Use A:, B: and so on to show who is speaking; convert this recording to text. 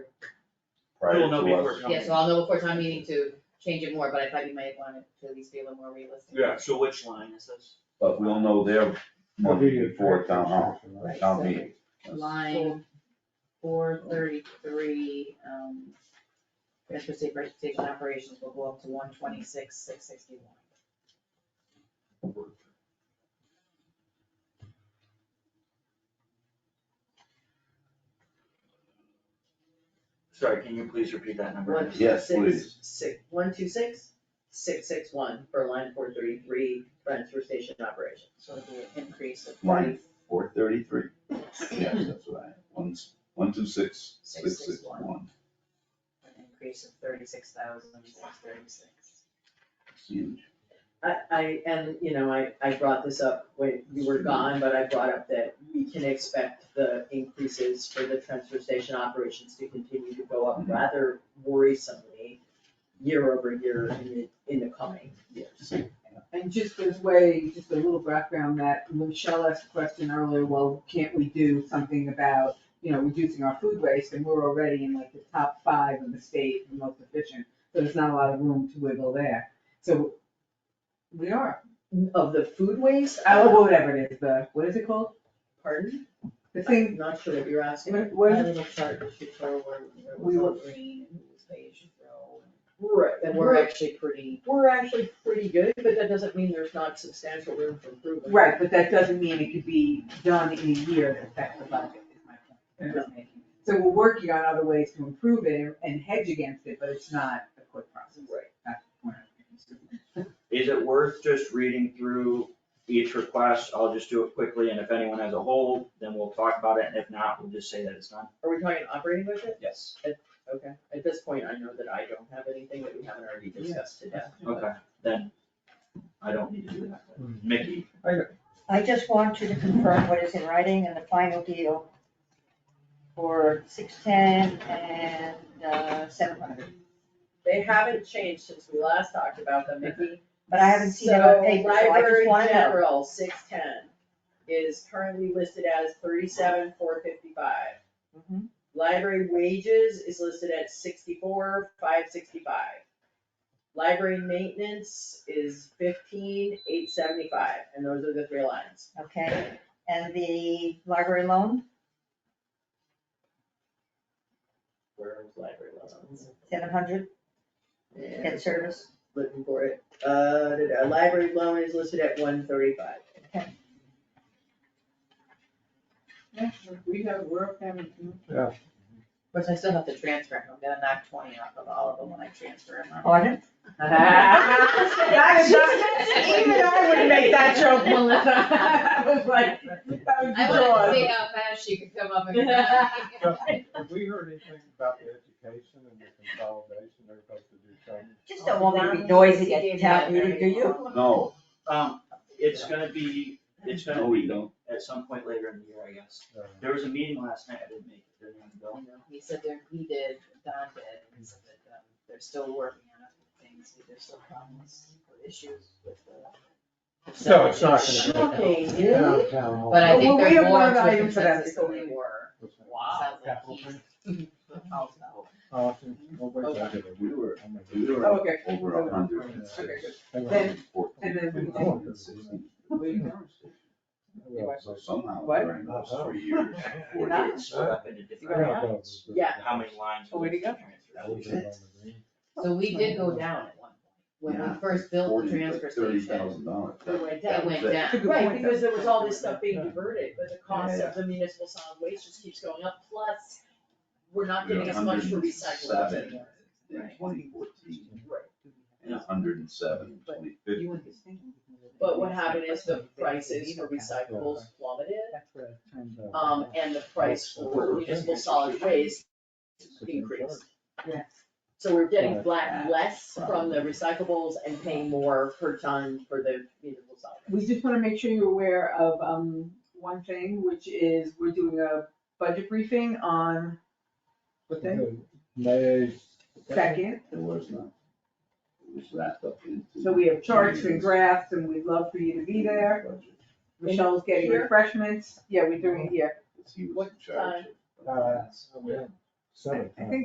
A: prior
B: We'll
A: to
B: know before
A: us.
B: town
C: Yeah, so I'll know before time meeting to change it more, but I thought you might want it to at least be a little more realistic.
B: Yeah, so which line is this?
A: But we'll know their money before town hall,
C: Right,
A: town
C: so
A: meeting.
C: Line four thirty-three, um, transfer state bus station operations will go up to one twenty-six, six sixty-one.
B: Sorry, can you please repeat that number?
D: One,
A: Yes, please.
D: six, six, one, two, six, six, six, one, for line four thirty-three, transfer station operation.
C: So it'll be an increase of
A: Line four thirty-three, yes, that's what I, one, s- one, two, six, six, six, one.
C: an increase of thirty-six thousand, six thirty-six.
A: It's huge.
D: I, I, and, you know, I, I brought this up when you were gone, but I brought up that we can expect the increases for the transfer station operations to continue to go up
A: Mhm.
D: rather worrisomely year over year in the, in the coming years.
E: And just as way, just a little background that Michelle asked a question earlier, well, can't we do something about, you know, reducing our food waste? And we're already in like the top five in the state, the most efficient, so there's not a lot of room to wiggle there. So we are,
D: Of the food waste, I
E: oh,
D: will,
E: whatever it is, the, what is it called?
D: pardon,
E: The
D: I'm
E: thing,
D: not sure what you're asking.
E: what, what
C: My
E: is it?
C: little chart that you show where where it was
E: We
C: all
E: will-
C: green and it was beige and yellow,
D: Right,
C: and we're actually pretty,
D: we're actually pretty good, but that doesn't mean there's not substantial room for improvement.
E: Right, but that doesn't mean it could be done in a year that affects the budget, is my point. I'm just making. So we're working on other ways to improve it and hedge against it, but it's not a quick process.
D: Right.
E: That's the point I'm making.
B: Is it worth just reading through each request? I'll just do it quickly, and if anyone has a hold, then we'll talk about it, and if not, we'll just say that it's done.
D: Are we talking operating budget?
B: Yes.
D: Okay, at this point, I know that I don't have anything that we haven't already discussed today.
B: Okay, then I don't need to do that. Mickey,
F: I just want you to confirm what is in writing and the final deal for six ten and uh, seven hundred.
D: They haven't changed since we last talked about them, Mickey.
F: But I haven't seen it on paper, so I just wanna
D: So library
F: know.
D: general, six ten, is currently listed as thirty-seven, four fifty-five.
F: Mhm.
D: Library wages is listed at sixty-four, five sixty-five. Library maintenance is fifteen, eight seventy-five, and those are the three lines.
F: Okay, and the library loan,
D: Where is library loans?
F: seven hundred,
D: And
F: debt service.
D: looking for it, uh, da-da, library loan is listed at one thirty-five.
E: Yeah, we have, we're family.
C: which I still have to transfer, I'm gonna knock twenty off of all of them when I transfer them.
E: Oh,
F: Pardon?
E: That is not- even I would make that joke, Melissa. I was like, that was
C: I wanted to
E: yours.
C: see how fast you could come up and.
G: Have we heard anything about the education and the consolidation, they're supposed to do something?
F: Just don't want me to be noisy at the town meeting, do you?
A: No,
B: um, it's gonna be, it's
A: no,
B: gonna
A: we
B: be
A: don't.
B: at some point later in the year, I guess.
G: Uh,
B: There was a meeting last night, I didn't make it, didn't have to go.
C: He said there, he did, Don did, and he said that, um, they're still working on other things, but there's still problems or issues with the.
G: So it's not gonna
D: Shocking,
G: be.
D: really?
G: Town hall.
C: But I
E: Well,
C: think
E: we
C: they're
E: have
C: more
E: one
C: to a
E: item for that
C: consensus than
E: this
C: they
E: week.
C: were.
G: What's that?
C: Sounds like
G: Capital
C: he's-
G: plan?
C: Oh, no.
G: Awesome. Well, wait a second.
A: We were,
G: I'm gonna-
A: we
E: Oh,
A: were
E: Okay,
A: over a hundred and
E: okay,
A: six.
E: good.
G: I'm
A: Over a
G: gonna-
A: hundred and fourteen.
E: And then we
G: can-
A: And sixteen.
E: We-
A: So somehow
E: What?
A: during those three years, four
E: Not-
A: years.
B: It's split up into
G: I'm
B: different,
G: gonna go.
D: Yeah.
B: how many lines?
E: Oh, where'd it go?
B: That was it.
C: So we did go down at one point, when
A: Yeah.
C: we first built the transfer
A: Thirty
C: station,
A: thousand dollars.
D: It went
C: that
D: down.
C: went
A: That-
C: down.
E: Good
D: Right,
E: point, though.
D: because there was all this stuff being diverted, but the cost
A: Yeah.
D: of the municipal solid waste just keeps going up, plus we're not
A: We're
D: getting as much for recyclables
A: 107.
D: anymore.
A: In twenty fourteen,
D: Right,
A: and a hundred and seven, twenty fifteen.
D: but what happened is the prices for recyclables plummeted, um, and the price for municipal solid waste increased.
E: Yeah.
D: So we're getting flat less from the recyclables and paying more per ton for the municipal solid waste.
E: We just wanna make sure you're aware of, um, one thing, which is we're doing a budget briefing on, what day?
G: May.
E: Second,
A: It was not. It was wrapped up into.
E: so we have charts and graphs and we'd love for you to be there. Michelle's getting
D: Here?
E: refreshments, yeah, we're doing it here.
A: Because he was
D: What
A: in charge of-
G: Uh, Seven.
E: I think